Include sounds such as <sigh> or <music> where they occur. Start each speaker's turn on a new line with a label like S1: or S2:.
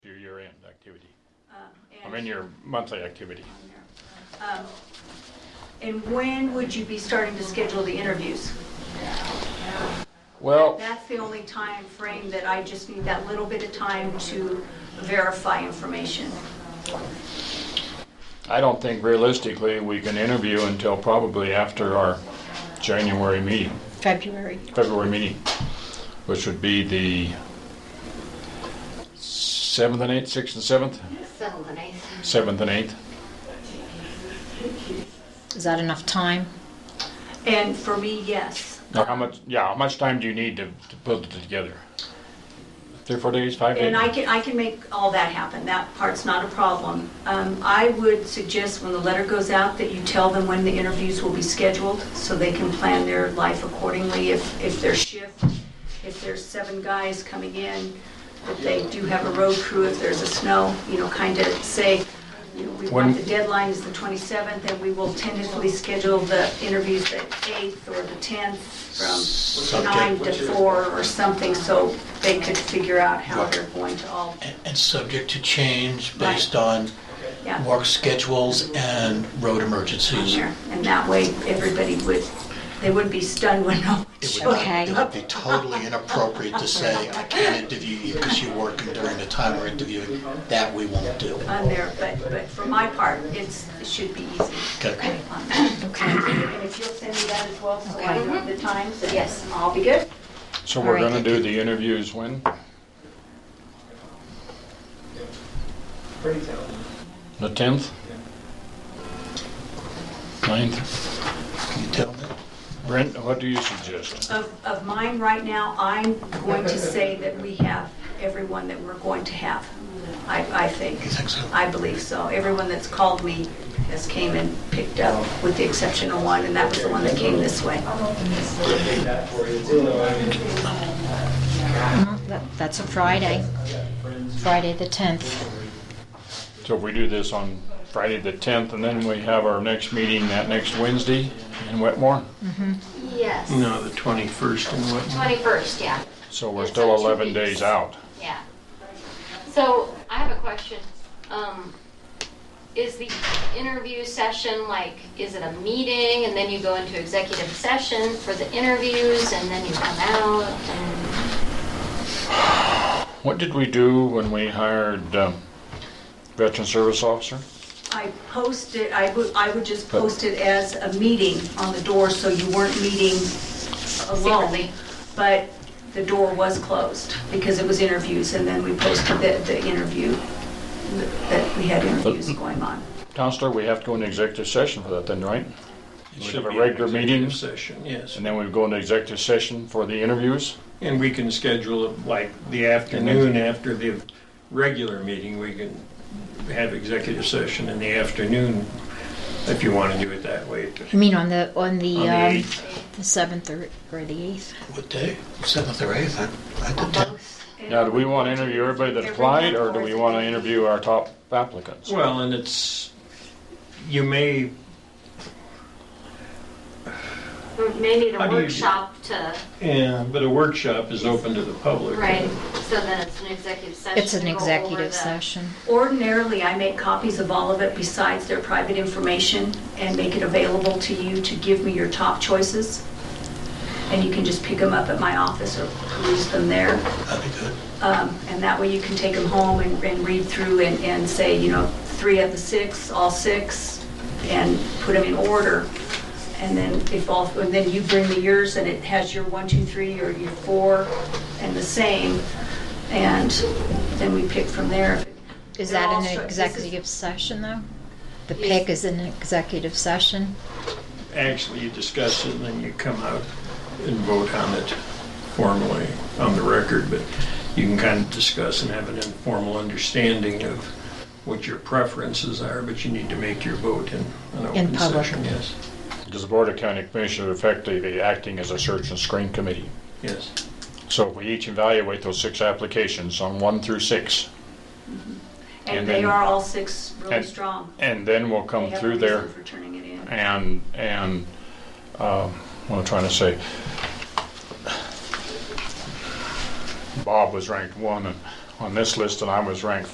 S1: activity,
S2: um,
S1: or in your monthly activity.
S2: Um, And when would you be starting to schedule the interviews?
S1: Well,
S2: That's the only time frame that I just need that little bit of time to verify information.
S1: I don't think realistically we can interview until probably after our January meeting,
S3: February.
S1: February meeting, which would be the 7th and 8th, 6th and 7th,
S4: Seventh and eighth.
S1: 7th and 8th.
S3: Is that enough time?
S2: And for me, yes.
S1: Now, how much, yeah, how much time do you need to to put it together? Three, four days, five days?
S2: And I can, I can make all that happen, that part's not a problem. Um, I would suggest when the letter goes out that you tell them when the interviews will be scheduled, so they can plan their life accordingly, if, if their shift, if there's seven guys coming in, that they do have a road crew, if there's a snow, you know, kind of say, you know, we
S1: When-
S2: want, the deadline is the 27th, and we will tentatively schedule the interviews the 8th or the 10th from 9 to 4 or something, so they could figure out how they're going to all,
S5: and subject to change
S2: Right.
S5: based on
S2: yeah,
S5: work schedules and road emergencies.
S2: here. And that way, everybody would, they wouldn't be stunned when <laughs> no one
S5: It would,
S2: showed
S3: Okay.
S5: not, it would be totally inappropriate to say, I can't interview you because you're working during the time we're interviewing. That we won't do.
S2: on there, but, but for my part, it's, it should be easy.
S5: Okay.
S2: on that.
S3: Okay.
S2: And if you'll send me that as well, so I know the times, then
S4: Yes.
S2: I'll be good.
S1: So we're
S3: All right.
S1: gonna do the interviews when? The 10th? 9th?
S5: You tell me.
S1: Brent, what do you suggest?
S2: Of, of mine right now, I'm going to say that we have everyone that we're going to have. I, I think.
S5: You think so?
S2: I believe so. Everyone that's called me has came and picked up, with the exception of one, and that was the one that came this way.
S3: Well, that- That's a Friday. Friday the 10th.
S1: So if we do this on Friday the 10th, and then we have our next meeting that next Wednesday in Wetmore?
S4: Yes.
S6: No, the 21st and what?
S4: Twenty-first, yeah,
S1: So we're
S4: It's
S1: still
S4: on two
S1: 11
S4: weeks.
S1: days out.
S4: yeah. So I have a question. Um, is the interview session like, is it a meeting and then you go into executive session for the interviews and then you come out and
S1: What did we do when we hired um, Veteran Service Officer?
S2: I posted, I would, I would just post it as a meeting on the door, so you weren't meeting alone.
S4: Secretly.
S2: But the door was closed because it was interviews, and then we posted the, the interview, that we had interviews going on.
S1: Counselor, we have to go into executive session for that then, right?
S6: It
S1: We
S6: should
S1: have a
S6: be an
S1: regular meeting.
S6: executive Session, yes.
S1: And then we go into executive session for the interviews?
S6: And we can schedule it like the afternoon after the regular meeting, we can have executive session in the afternoon if you want to do it that way.
S3: I mean, on the, on the,
S6: On the
S3: um,
S6: eighth.
S3: the 7th or, or the 8th.
S5: What day? Seventh or eighth? I I did tell.
S4: both?
S1: Now, do we want to interview everybody that applied, or do we want to interview our top applicants?
S6: Well, and it's, you may,
S4: Maybe
S6: How
S4: a
S6: do you do-
S4: workshop to,
S6: yeah, but a workshop is open to the public.
S4: right, so then it's an executive session.
S3: It's an
S4: to go over
S3: executive
S4: the-
S3: session.
S2: Ordinarily, I make copies of all of it besides their private information and make it available to you to give me your top choices. And you can just pick them up at my office or peruse them there.
S5: That'd be good.
S2: Um, And that way you can take them home and, and read through and, and say, you know, three of the six, all six, and put them in order. And then if all, and then you bring the yours and it has your one, two, three, or your four, and the same. And then we pick from there.
S3: Is
S2: They're all
S3: that
S2: stri-
S3: an
S2: this is-
S3: executive session, though? The pick is an executive session?
S6: Actually, you discuss it and then you come out and vote on it formally on the record, but you can kind of discuss and have an informal understanding of what your preferences are, but you need to make your vote in an open
S3: public.
S6: session, yes.
S1: Because the Board of County Commissioners effectively acting as a search and screen committee.
S6: Yes.
S1: So we each evaluate those six applications on one through six,
S2: And
S1: And
S2: they
S1: then-
S2: are all six really
S1: and-
S2: strong.
S1: and then we'll
S2: They
S1: come
S2: have a
S1: through
S2: reason
S1: there
S2: For turning it in.
S1: and, and, um, what I'm trying to say. Bob was ranked one on this list and I was ranked